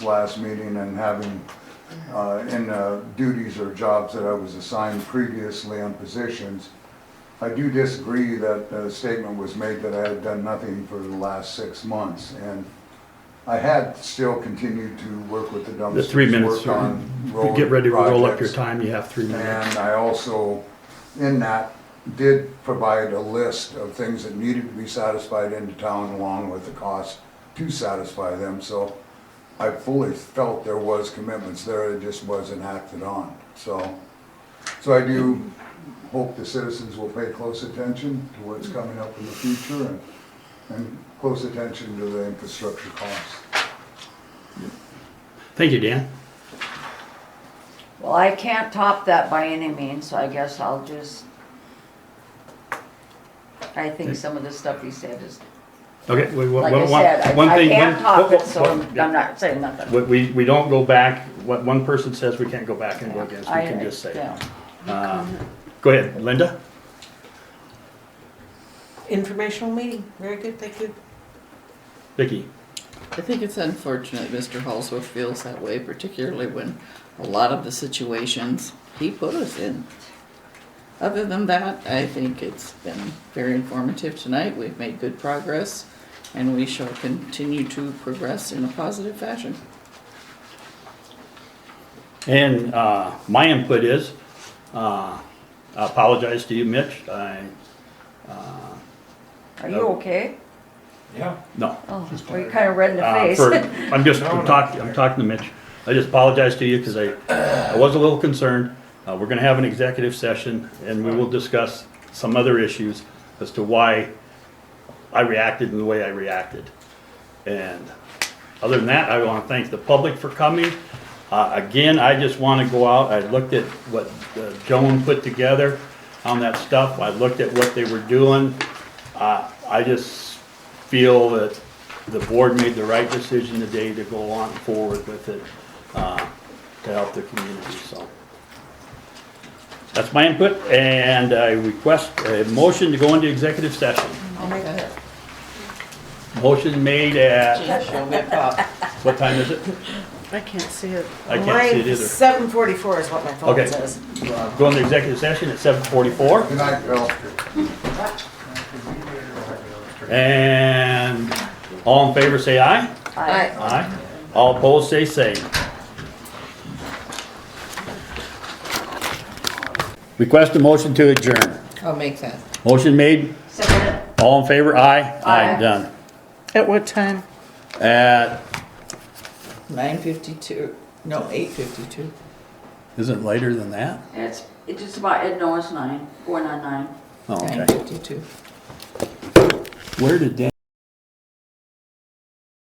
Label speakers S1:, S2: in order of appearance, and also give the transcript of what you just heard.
S1: last meeting and having, uh, in uh, duties or jobs that I was assigned previously on positions, I do disagree that a statement was made that I had done nothing for the last six months. And I had still continued to work with the dumpsters.
S2: The three minutes,
S1: work
S2: sir.
S1: on road
S2: Get ready to roll up your
S1: projects.
S2: time, you have three minutes.
S1: And I also, in that, did provide a list of things that needed to be satisfied into town along with the cost to satisfy them, so I fully felt there was commitments there, it just wasn't acted on, so. So I do hope the citizens will pay close attention to what's coming up in the future and, and close attention to the infrastructure costs.
S2: Thank you, Dan.
S3: Well, I can't top that by any means, so I guess I'll just. I think some of the stuff he said is,
S2: Okay, we, one,
S3: like I
S2: one, one
S3: said,
S2: thing.
S3: I, I can't
S2: one-
S3: top it,
S2: one-
S3: so I'm I'm not saying nothing.
S2: We, we, we don't go back, what one person says, we can't go back and go against, we
S3: I-
S2: can just say.
S3: yeah.
S2: Um, Go ahead, Linda?
S4: Informational meeting. Very good, thank you.
S2: Vicky?
S5: I think it's unfortunate Mr. Halsworth feels that way, particularly when a lot of the situations he put us in. Other than that, I think it's been very informative tonight. We've made good progress, and we shall continue to progress in a positive fashion.
S2: And uh, my input is, uh, I apologize to you, Mitch. I, Uh,
S3: Are you okay?
S6: Yeah.
S2: no.
S3: Oh, well, you're kinda red in the
S2: Uh,
S3: face.
S2: for- I'm just,
S6: No,
S2: I'm
S6: no.
S2: talking, I'm talking to Mitch. I just apologize to you because I, I was a little concerned. Uh, We're going to have an executive session and we will discuss some other issues as to why I reacted in the way I reacted. And other than that, I want to thank the public for coming. Uh, Again, I just want to go out, I looked at what uh, Joan put together on that stuff, I looked at what they were doing. Uh, I just feel that the board made the right decision today to go on forward with it uh, to help the community, so. That's my input, and I request a motion to go into executive session.
S4: I'll make that.
S2: Motion made at,
S5: Gee, show me a pop.
S2: what time is it?
S4: I can't see it.
S2: I can't see it either.
S4: Seven forty-four is what my phone
S2: Okay.
S4: says.
S2: Go into executive session at seven forty-four,
S1: Good night, Bill.
S2: and all in favor say aye.
S3: I-
S2: Aye. All opposed say same. Request a motion to adjourn.
S5: I'll make that.
S2: Motion made,
S3: Second.
S2: all in favor, aye.
S3: Aye.
S2: Done.
S4: At what time?
S2: At,
S5: Nine fifty-two, no, eight fifty-two.
S2: is it later than that?
S3: It's, it's just about, it- no, it's nine, four nine nine.
S2: Oh,
S5: Nine
S2: okay.
S5: fifty-two.
S2: Where did Dan?